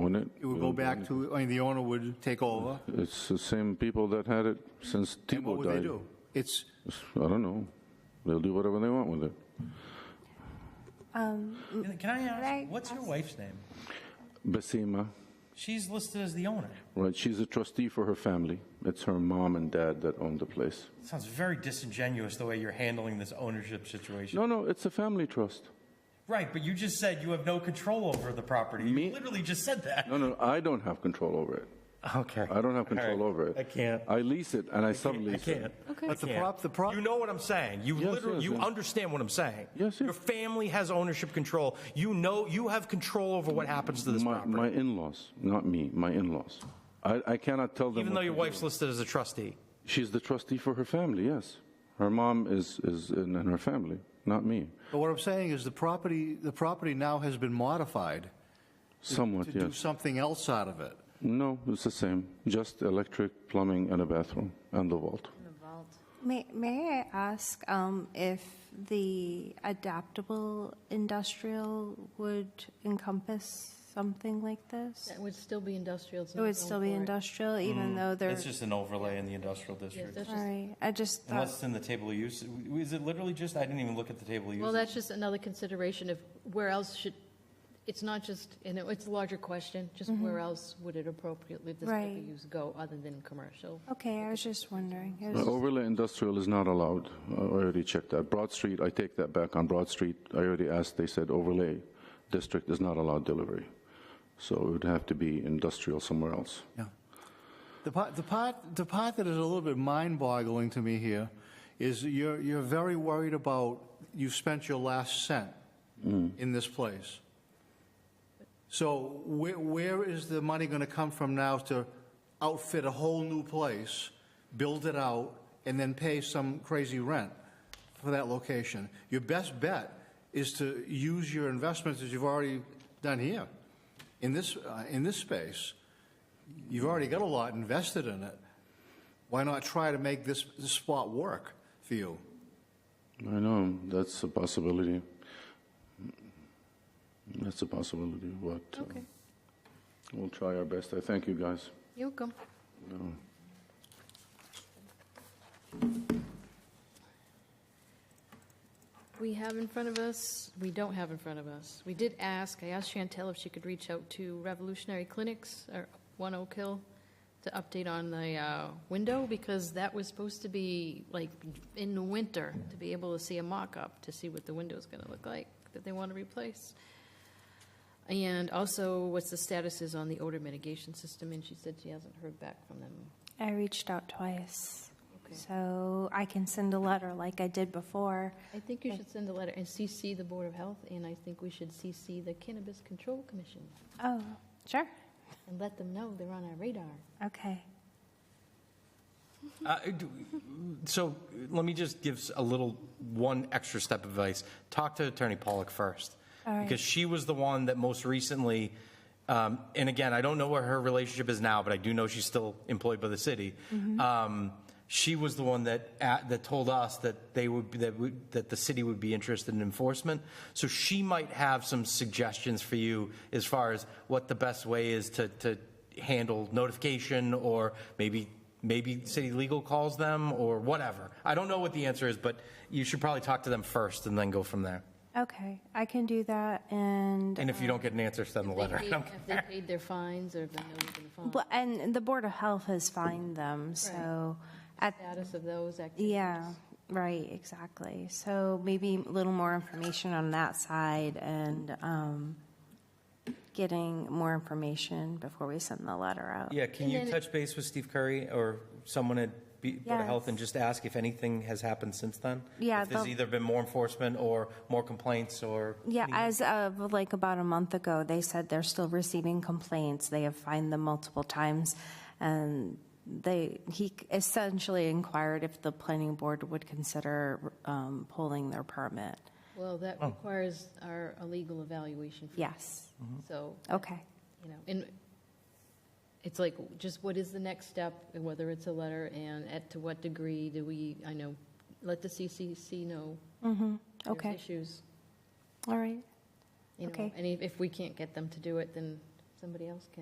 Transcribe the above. wouldn't it? It would go back to, I mean, the owner would take over. It's the same people that had it since And what Tebow would they died. do? It's, I don't know. They'll do whatever they want with it. Can I I ask, what's your ask- wife's name? Basima, She's listed as the owner. right, she's a trustee for her family. It's her mom and dad that own the place. Sounds very disingenuous the way you're handling this ownership situation. No, no, it's a family trust. Right, but you just said you have no control over the property. Me- You literally just said that. No, no, I don't have control over it. Okay. I don't have control All over right. it. I can't. I lease it and I I sublease can't. it. but the can't. prop, the prop, You know what I'm saying. You Yes, literally, yes, you yes. understand what I'm saying. Yes, yes. Your family has ownership control. You know, you have control over what happens to this My, property, my in-laws, not me, my in-laws. I, I cannot tell them. what even though to your do. wife's listed as a trustee. She's the trustee for her family, yes. Her mom is, is in, in her family, not me. but what I'm saying is the property, the property now has been modified Somewhat, to do yes. something else out of it. No, it's the same. Just electric, plumbing, and a bathroom, and the vault. May, may I ask um, if the adaptable industrial would encompass something like this? It would still be industrial. it's It not would zoned still be for it. industrial, even though they're, Mm, It's just an overlay in the industrial Yeah, district. that's just- sorry, I just Unless thought, it's in the table of use, is it literally just, I didn't even look at the table of use. Well, that's just another consideration of where else should, it's not just, and it- it's a larger question, just where else would it appropriately, this type Mm-hmm. Right. of use go other than commercial? okay, I was just wondering. It Uh, was- Overlay industrial is not allowed. I already checked that. Broad Street, I take that back. On Broad Street, I already asked, they said overlay district is not allowed delivery. So it would have to be industrial somewhere else. Yeah. The part, the part, the part that is a little bit mind-boggling to me here is you're, you're very worried about you've spent your last cent in this place. So where, where is the money going to come from now to outfit a whole new place, build it out, and then pay some crazy rent for that location? Your best bet is to use your investments that you've already done here, in this, uh, in this space. You've already got a lot invested in it. Why not try to make this, this spot work for you? I know, that's a possibility. That's a possibility, but uh, Okay, we'll try our best. I thank you, guys. you're welcome. We have in front of us, we don't have in front of us. We did ask, I asked Chantel if she could reach out to Revolutionary Clinics or One Oak Hill to update on the uh, window because that was supposed to be like in the winter to be able to see a mock-up to see what the window's going to look like that they want to replace. And also, what's the status is on the odor mitigation system, and she said she hasn't heard back from them. I reached out twice, Okay. so I can send a letter like I did before. I think you should send a letter and CC the Board of Health, and I think we should CC the Cannabis Control Commission Oh, sure, and let them know they're on our radar. okay. Uh, do- So let me just give a little, one extra step of advice. Talk to Attorney Pollock first. All right. Because she was the one that most recently, um, and again, I don't know what her relationship is now, but I do know she's still employed by the city. Mm-hmm. Um, She was the one that, at- that told us that they would, that would, that the city would be interested in enforcement. So she might have some suggestions for you as far as what the best way is to, to handle notification or maybe maybe city legal calls them or whatever. I don't know what the answer is, but you should probably talk to them first and then go from there. Okay, I can do that, and And if you don't get an answer, send the If they letter. paid- If they paid their fines or if they know they're going to Well, and the Board of Health has fined them, so, at, Status of those activities. yeah, right, exactly. So maybe a little more information on that side and um, getting more information before we send the letter out. Yeah, can you touch base with Steve Curry or someone at B- Board of Health and just ask if anything has happened since then? Yeah, If there's the- either been more enforcement or more complaints or? Yeah, as of like about a month ago, they said they're still receiving complaints. They have fined them multiple times. And they, he essentially inquired if the planning board would consider um, pulling their permit. Well, that requires our a legal evaluation. first. Yes, So, okay. you know, and it's like, just what is the next step, and whether it's a letter, and at to what degree do we, I know, let the CCC know there's Okay, issues. all right. you know, Okay. And if- if we can't get them to do it, then somebody else can.